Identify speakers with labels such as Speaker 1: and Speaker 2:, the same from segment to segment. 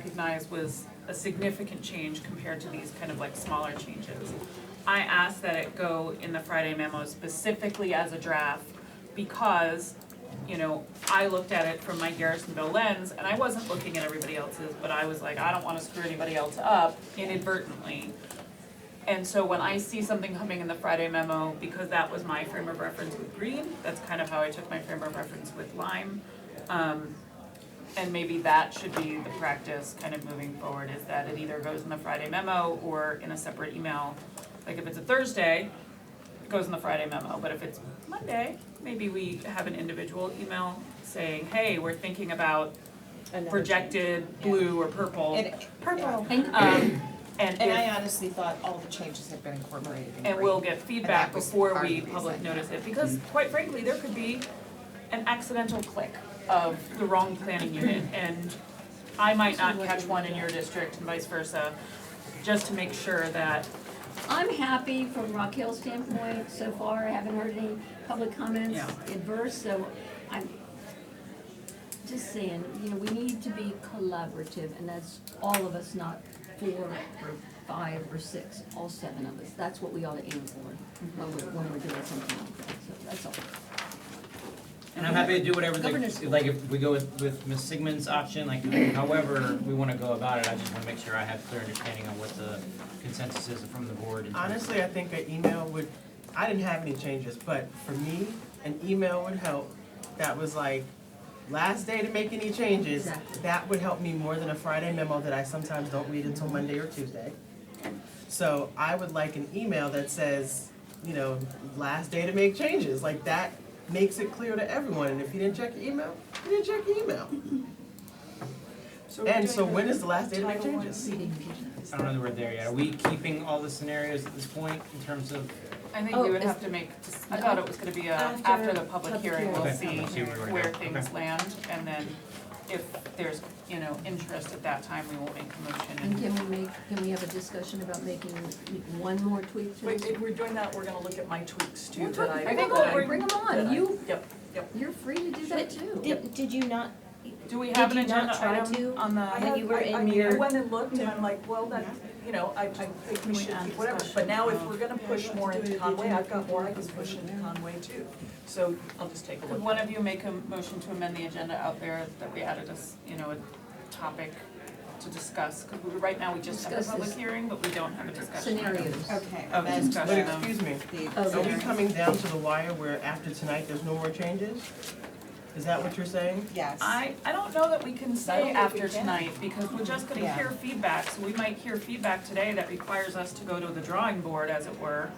Speaker 1: recognized was a significant change compared to these kind of like smaller changes. I asked that it go in the Friday memo specifically as a draft because, you know, I looked at it from my Garrisonville lens and I wasn't looking at everybody else's, but I was like, I don't wanna screw anybody else up inadvertently. And so when I see something coming in the Friday memo, because that was my frame of reference with green, that's kind of how I took my frame of reference with lime. Um, and maybe that should be the practice kind of moving forward, is that it either goes in the Friday memo or in a separate email. Like if it's a Thursday, it goes in the Friday memo, but if it's Monday, maybe we have an individual email saying, hey, we're thinking about projected blue or purple.
Speaker 2: And, purple.
Speaker 3: And
Speaker 1: Um, and
Speaker 2: and
Speaker 1: if-
Speaker 2: I honestly thought all the changes had been incorporated in
Speaker 1: and
Speaker 2: green.
Speaker 1: we'll get feedback
Speaker 2: that was
Speaker 1: before
Speaker 2: part of
Speaker 1: we
Speaker 2: the
Speaker 1: public
Speaker 2: reason.
Speaker 1: notice it, because quite frankly, there could be an accidental click of the wrong planning unit, and I might not catch one in your district and vice versa, just to make sure that,
Speaker 3: I'm happy from Rock Hill standpoint so far. I haven't heard any public comments
Speaker 1: Yeah.
Speaker 3: adverse, so I'm just saying, you know, we need to be collaborative and that's all of us, not four or five or six, all seven of us. That's what we ought to aim for when we're, when we're doing something like that, so that's all.
Speaker 4: And I'm happy to do whatever,
Speaker 3: Governors.
Speaker 4: the like, if we go with, with Ms. Sigmund's option, like, however we wanna go about it, I just wanna make sure I have clear understanding on what the consensus is from the board. in terms of-
Speaker 5: Honestly, I think an email would, I didn't have any changes, but for me, an email would help. That was like, last day to make any changes.
Speaker 3: Exactly.
Speaker 5: That would help me more than a Friday memo that I sometimes don't read until Monday or Tuesday. So I would like an email that says, you know, last day to make changes, like that makes it clear to everyone. And if you didn't check your email, you didn't check your email. And so when is the last day to make changes?
Speaker 4: I don't know that we're there yet. Are we keeping all the scenarios at this point in terms of?
Speaker 1: I think
Speaker 3: Oh,
Speaker 1: we would
Speaker 3: is-
Speaker 1: have to make, I thought it was gonna be a,
Speaker 3: After
Speaker 1: after the public
Speaker 3: public
Speaker 1: hearing, we'll
Speaker 4: Okay,
Speaker 1: see
Speaker 4: we'll see where we're
Speaker 1: where
Speaker 4: going.
Speaker 1: things
Speaker 4: Okay.
Speaker 1: land, and then if there's, you know, interest at that time, we will make a motion
Speaker 3: And
Speaker 1: and
Speaker 3: can we make, can we have a discussion about making one more tweak to
Speaker 6: Wait,
Speaker 3: this?
Speaker 6: if we're doing that, we're gonna look at my tweaks too, that I.
Speaker 3: I think
Speaker 6: that I-
Speaker 3: we'll bring them
Speaker 6: that
Speaker 3: on.
Speaker 6: I-
Speaker 3: You,
Speaker 6: Yep, yep.
Speaker 3: you're free to do that too.
Speaker 7: Did, did you not,
Speaker 1: Do we
Speaker 7: Did
Speaker 1: have an
Speaker 7: you not
Speaker 1: agenda
Speaker 7: try
Speaker 1: item
Speaker 7: to?
Speaker 1: on the?
Speaker 6: I
Speaker 7: When
Speaker 6: have-
Speaker 7: Uh, you were
Speaker 6: I- I
Speaker 7: in
Speaker 6: mean, I
Speaker 7: your-
Speaker 6: went and looked and I'm like, well, that, you know, I, I think we should keep whatever, Oh. but now if we're gonna push more into Conway, I've got more I can push into Conway too. So I'll just take a
Speaker 1: Could
Speaker 6: look.
Speaker 1: one of you make a motion to amend the agenda out there that we added as, you know, a topic to discuss? Because we, right now, we just have a
Speaker 3: Discuss
Speaker 1: public
Speaker 3: this.
Speaker 1: hearing, but we don't have a discussion.
Speaker 3: Scenarios.
Speaker 2: Okay.
Speaker 6: Oh,
Speaker 1: Of
Speaker 2: that's
Speaker 1: discussion.
Speaker 5: But
Speaker 2: the-
Speaker 5: excuse me,
Speaker 2: the-
Speaker 3: Oh,
Speaker 5: Are we
Speaker 3: yeah.
Speaker 5: coming down to the wire where after tonight, there's no more changes? Is that what you're saying?
Speaker 2: Yes.
Speaker 1: I, I don't know that we can say
Speaker 6: don't think we
Speaker 1: after
Speaker 6: can.
Speaker 1: tonight, because we're just gonna
Speaker 2: Yeah.
Speaker 1: hear feedback, so we might hear feedback today that requires us to go to the drawing board, as it were,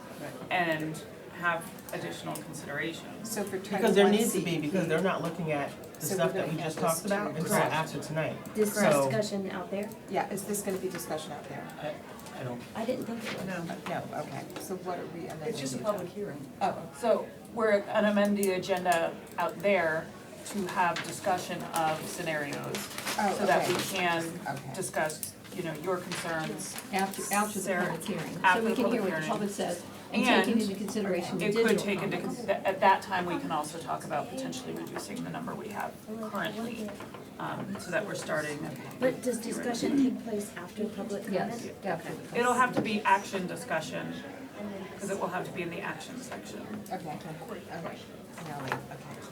Speaker 1: and have additional considerations.
Speaker 2: So for
Speaker 5: Because there
Speaker 2: twenty-one
Speaker 5: needs to be, because they're
Speaker 2: CEP,
Speaker 5: not looking at the
Speaker 2: So we're
Speaker 5: stuff that
Speaker 2: gonna
Speaker 5: we
Speaker 2: add
Speaker 5: just
Speaker 2: this
Speaker 5: talked
Speaker 2: to
Speaker 5: about until
Speaker 4: Correct.
Speaker 5: after tonight.
Speaker 7: this
Speaker 5: So-
Speaker 7: discussion out there?
Speaker 2: yeah, is this gonna be discussion out there?
Speaker 4: I, I don't,
Speaker 7: I didn't think it was.
Speaker 6: Uh, No,
Speaker 2: No, okay, so what are we amending? Oh,
Speaker 6: it's just a
Speaker 2: the
Speaker 6: public hearing.
Speaker 2: agenda?
Speaker 1: So we're gonna amend the agenda out there to have discussion of scenarios,
Speaker 2: Oh,
Speaker 1: so that we
Speaker 2: okay.
Speaker 1: can
Speaker 2: Okay.
Speaker 1: discuss, you know, your concerns.
Speaker 3: After, after the
Speaker 1: Sarah,
Speaker 3: public hearing,
Speaker 1: after
Speaker 3: so we
Speaker 1: the
Speaker 3: can
Speaker 1: public
Speaker 3: hear what the
Speaker 1: hearing.
Speaker 3: public says, and taking
Speaker 1: And
Speaker 3: into consideration the
Speaker 1: It
Speaker 3: digital
Speaker 1: could take into,
Speaker 3: comments.
Speaker 1: cons- that- at that time, we can also talk about potentially reducing the number we have currently, um, so that we're starting.
Speaker 7: But does discussion take place after public comment?
Speaker 3: Yes, definitely.
Speaker 1: It'll have to be action discussion, because it will have to be in the action section.
Speaker 2: Okay, okay, okay, now, wait, okay.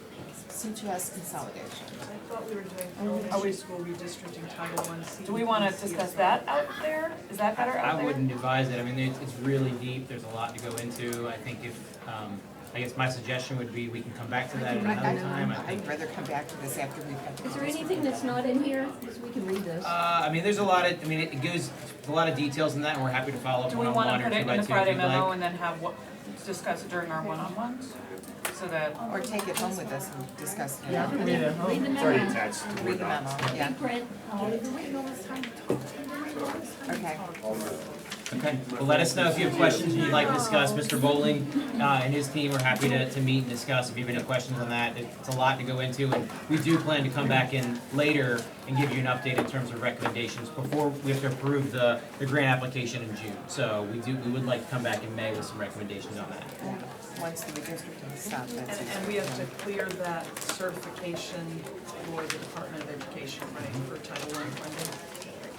Speaker 2: C two S consolidation.
Speaker 6: I thought we were doing elementary school redistricting Title One C.
Speaker 1: Do we wanna discuss that out there? Is that better out
Speaker 4: I
Speaker 1: there?
Speaker 4: wouldn't advise it. I mean, it's, it's really deep. There's a lot to go into. I think if, um, I guess my suggestion would be we can come back to that at another time. I think
Speaker 2: I'd rather come back to this after we've got the.
Speaker 3: Is there anything that's not in here, because we can read those?
Speaker 4: Uh, I mean, there's a lot of, I mean, it goes, a lot of details in that, and we're happy to follow up
Speaker 1: Do we
Speaker 4: one-on-one
Speaker 1: wanna
Speaker 4: or
Speaker 1: put
Speaker 4: two
Speaker 1: it
Speaker 4: by
Speaker 1: in
Speaker 4: two
Speaker 1: the
Speaker 4: if you'd like.
Speaker 1: Friday memo and then have what, discuss it during our one-on-ones? So that,
Speaker 2: Or take it home with us and discuss it.
Speaker 3: Yeah.
Speaker 5: Read it home.
Speaker 3: Read the
Speaker 5: It's
Speaker 3: memo,
Speaker 2: Read the memo, yeah,
Speaker 3: big print,
Speaker 2: okay.
Speaker 4: Okay, well, let us know if you have questions that you'd like to discuss. Mr. Bowling uh, and his team are happy to, to meet and discuss if you have any questions on that. It's a lot to go into, and we do plan to come back in later and give you an update in terms of recommendations before we have to approve the, the grant application in June. So we do, we would like to come back in May with some recommendations on that.
Speaker 2: Once the redistricting stops, that's.
Speaker 6: And, and we have to clear that certification for the Department of Education, right, for Title One funding?